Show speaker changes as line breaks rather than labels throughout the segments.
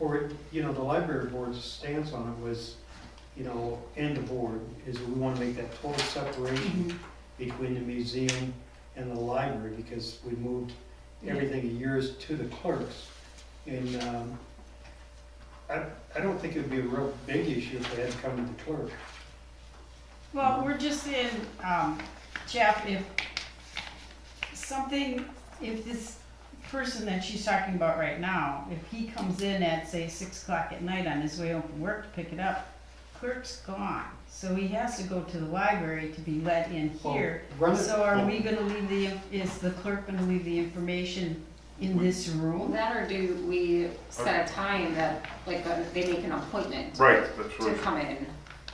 or, you know, the library board's stance on it was, you know, and the board, is we wanna make that total
Mm-hmm.
separation between the museum and the library, because we moved everything of yours to the clerks. And, um, I, I don't think it'd be a real big issue if they had to come to the clerk.
Well, we're just in, um, Jeff, if something, if this person that she's talking about right now, if he comes in at, say, six o'clock at night on his way home from work to pick it up, clerk's gone, so he has to go to the library to be let in
Well,
here.
run it-
So are we gonna leave the, is the clerk gonna leave the information in this room?
That or do we set a time that, like, uh, they make an appointment
Right, that's what I
to
was
come in?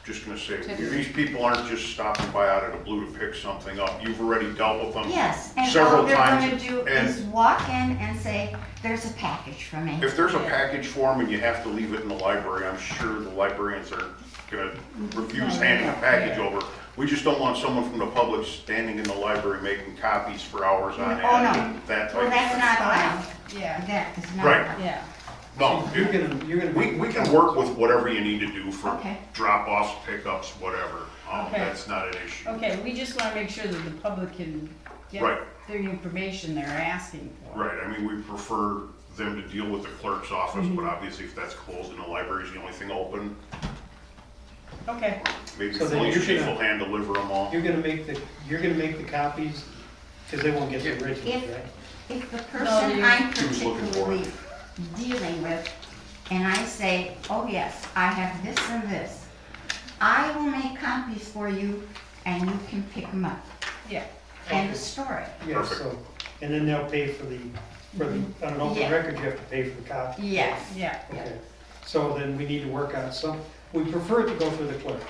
just gonna say,
To-
these people aren't just stopping by out of the blue to pick something up. You've already dealt with them.
Yes, and
Several
all they're gonna
times,
do
and-
is walk in and say, there's a package for me.
If there's a
Yeah.
package for them and you have to leave it in the library, I'm sure the librarians are gonna refuse handing a package over. We just don't want someone from the public standing in the library making copies for hours on
Oh, no.
end, that type
Well,
of
that's
thing.
not allowed.
Yeah,
That is not
Right.
allowed.
yeah.
No,
You're
you-
gonna, you're gonna.
Oh. we, we can work with whatever you need to do for
Okay.
drop-offs, pickups, whatever. Um,
Okay.
that's not an issue.
Okay, we just wanna make sure that the public can get
Right.
the information they're asking for.
Right, I mean, we prefer them to deal with the clerk's office,
Mm-hmm.
but obviously if that's closed and the library's the only thing open,
Okay,
maybe
So then
police
you're
chief
gonna-
will hand deliver them all.
You're gonna make the, you're gonna make the copies, cause they won't get the originals,
If,
right?
if the person
you-
I'm
He was looking for
particularly
it.
dealing with, and I say, oh yes, I have this and this, I will make copies for you and you can pick them up.
yeah.
End of story.
Yeah, so, and then they'll pay for the, for the, on an open
Yeah.
record, you have to pay for the copy.
Yes.
Yeah,
Okay, so then we need to work out some, we prefer it to go through the clerk.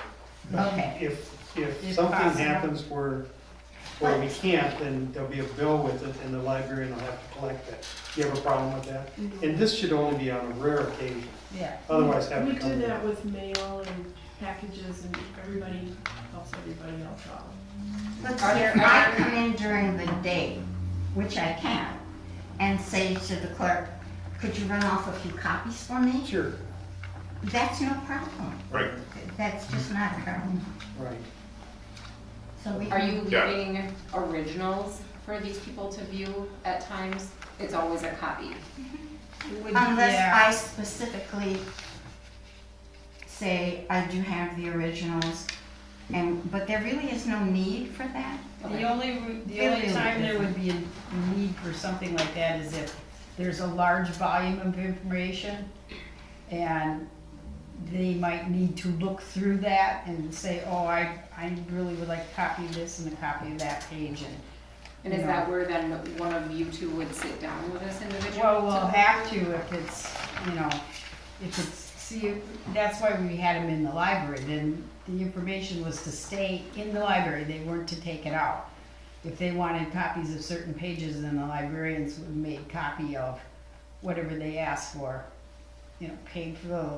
Okay.
If, if
If
something
possible.
happens where, where we can't, then there'll be a bill with it and the librarian will have to collect that. You have a problem with that? And this should only be on a rare occasion,
yeah.
otherwise have
We
to
do
come
that
back.
with mail and packages and everybody helps everybody else out.
Let's
Are
see,
there-
if I come in during the day, which I can, and say to the clerk, could you run off a few copies for me?
Sure,
That's no problem.
Right,
That's just not a problem.
right.
So we
Are you
Yeah.
leaving originals for these people to view at times? It's always a copy.
Would-
Unless
yeah.
I specifically say I do have the originals, and, but there really is no need for that.
The
Okay.
only, re- the only
Really
time there would
different.
be a need for something like that is if there's a large volume of information and they might need to look through that and say, oh, I, I really would like a copy of this and a copy of that page and
And is that where then one of you two would sit down with this individual?
Well, we'll
to-
have to if it's, you know, if it's, see, that's why we had them in the library, then the information was to stay in the library, they weren't to take it out. If they wanted copies of certain pages, then the librarians would make copy of whatever they asked for. You know, paid for the,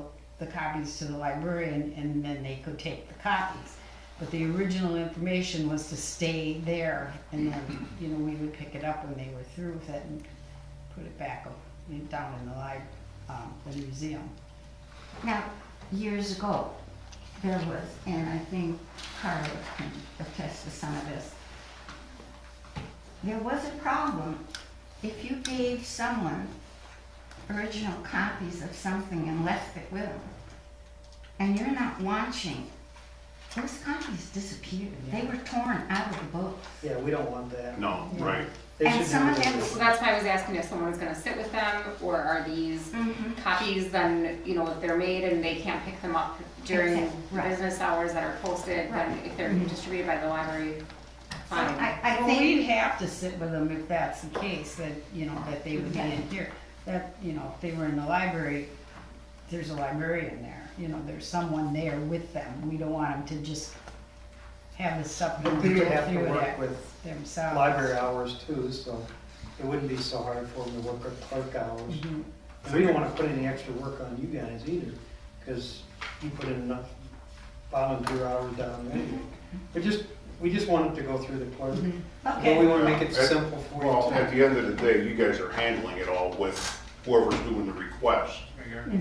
the copies to the librarian, and then they could take the copies. But the original information was to stay there, and then, you know, we would pick it up when they were through with it and put it back up, down in the li- um, the museum.
Now, years ago, there was, and I think Carla can attest to some of this. There was a problem. If you gave someone original copies of something and left it with them, and you're not watching, those copies disappeared. They were torn out of the book.
Yeah, we don't want that.
no, right.
They
And
should do
some of
that.
them-
So that's why I was asking if someone's gonna sit with them, or are these copies then, you know, if they're made and they can't pick them up during
Exact- right.
business hours that are posted, then
Right.
if they're distributed by the library, fine.
I, I
Well, we'd
think,
have to sit with them if that's the case, that, you know, that they would be in here. That, you know, if they were in the library, there's a librarian there, you know, there's someone there with them. We don't want them to just have the stuff
But
and
we
go
would have to
through
work
that
with
themselves.
library hours too, so it wouldn't be so hard for them to work with clerk hours.
Mhm.
And we don't wanna put any extra work on you guys either, cause you put in enough volunteer hours down there. We just, we just want it to go through the clerk, but we
okay,
wanna make it
Yeah, at-
simple for you
Well,
too.
at the end of the day, you guys are handling it all with whoever's doing the request.